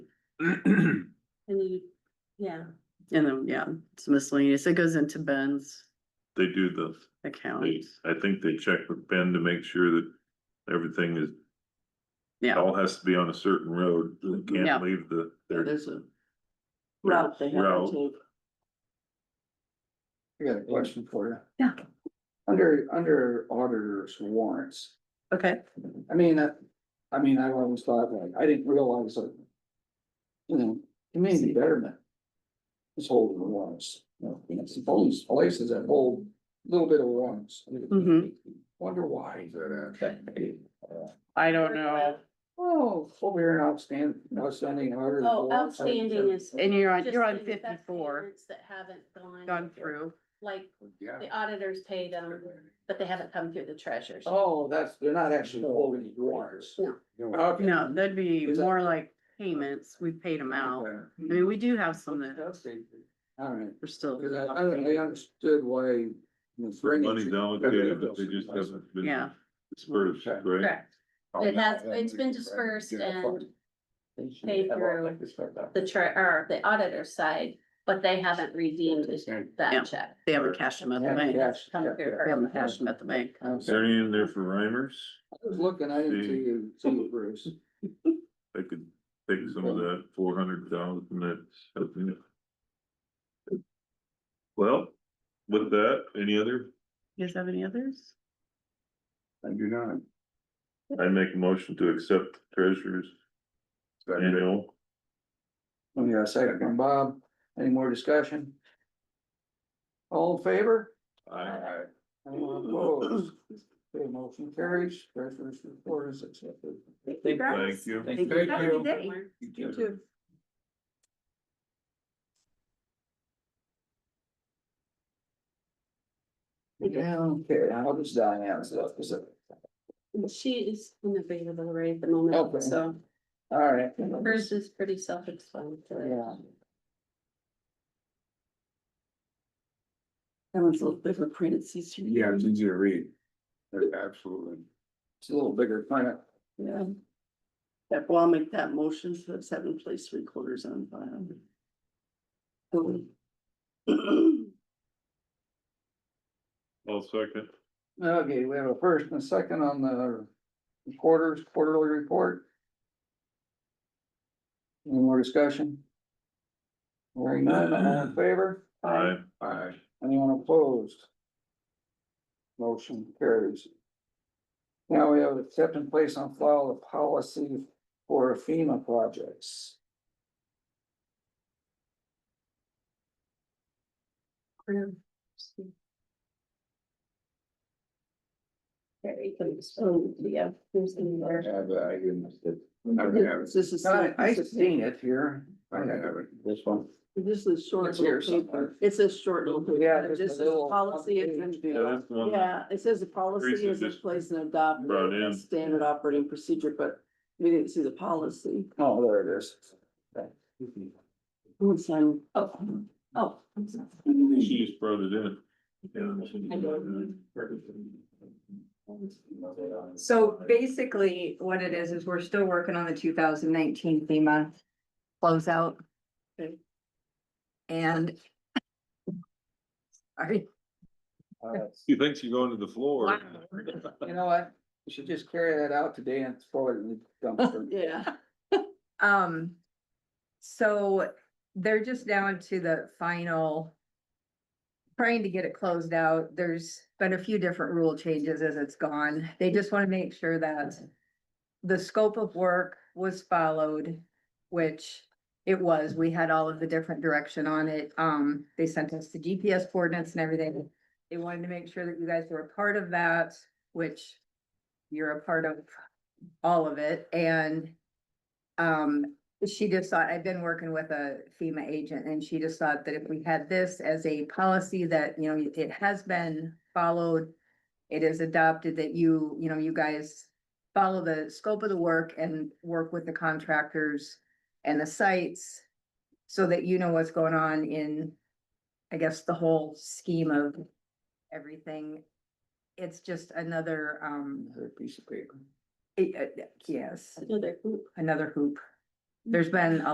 And And you, yeah, then, yeah, it's miscellaneous. It goes into Ben's They do the, account. they, I think they check with Ben to make sure that everything is. Yeah. All has to be on a certain road, they Yeah. can't leave the, their There's a route route they have Route. to take. I got a question for you. Yeah. Under, under auditor's warrants, Okay, I mean, that, I mean, I always thought like, I didn't realize that. You know, community betterment. Is holding the warrants, you know, it's those places that hold a little bit of warrants. Mhm. Wonder why is that at? I don't know. Oh, over here outstanding, outstanding auditor. oh, outstanding is. And you're on, just you're on the best fifty-four, payments That haven't gone gone, through. like, Yeah. the auditors pay them, but they haven't come through the treasures. Oh, that's, they're not actually holding the warrants. Oh, No. Okay. No, that'd be Is that- more like payments. We paid them out. Okay. I mean, we do have some that All right, are still. because I, I I understood why. money's allocated, but they just haven't been Yeah. dispersed, right? Correct. It has- it's been dispersed and paid through The tre, or the auditor side, but they haven't redeemed Yeah. that check. They haven't cashed them at the bank. They Yes, Come through. yeah, haven't cashed them at the bank. yeah. Is there any in there for rhymers? I was looking, I didn't see you, see you, Bruce. They could take some of that four hundred thousand that's. up in it. Well, with that, any other, You guys have any others? I do not. I make a motion to accept treasurer's annual. Oh, yeah, second from Bob. Any more discussion? All in favor? I- Anyone opposed? Okay, motion carries. Treasurer's report is accepted. Thank you. Thank you. Have a good day. You too. Yeah, okay, I'll just die now, so, so, She is unavailable right at the moment, Okay. so all right. hers is pretty self-explanatory. Yeah. That one's a little bit of a printed, it's easier. Yeah, it's easy to read. Absolutely. It's a little bigger, kind of. Yeah. That, well, I'll make that motion for the seven place three quarters on file. I'll second. Okay, we have a first and a second on the quarters, quarterly report. Any more discussion? Hearing none, all in favor? Aye. Aye. Anyone opposed? Motion carries. Now we have accept and place on file the policy for FEMA projects. Very good. So, yeah, there's in there. I didn't. This is, I, I this seen it here. This one. This is short It's here little paper. somewhere. It says short little Yeah, paper. It just just a says little policy is in update. Yeah, that's the one. Yeah, it says the policy Teresa is in just place and adopted. brought in. Standard operating procedure, but we didn't see the policy. Oh, there it is. Who would sign? Oh, oh. I'm sorry. She just brought it in. So basically, what it is, is we're still working on the two thousand nineteen FEMA closeout. Okay. And. Sorry, Uh, She thinks you're going to the floor. You know what? We should just carry that out today and throw it in the dumpster. Yeah. um, so they're just down to the final. Trying to get it closed out. There's been a few different rule changes as it's gone. They just want to make sure that. The scope of work was followed, which it was. We had all of the different direction on it. Um, they sent us the GPS coordinates and everything. They wanted to make sure that you guys were a part of that, which you're a part of all of it and um, she just thought, I've been working with a FEMA agent and she just thought that if we had this as a policy that, you know, it has been followed. It is adopted that you, you know, you guys follow the scope of the work and work with the contractors and the sites. So that you know what's going on in, I guess, the whole scheme of everything. It's just another, um, Another piece of paper. it- uh, yes Another group. another hoop. There's been a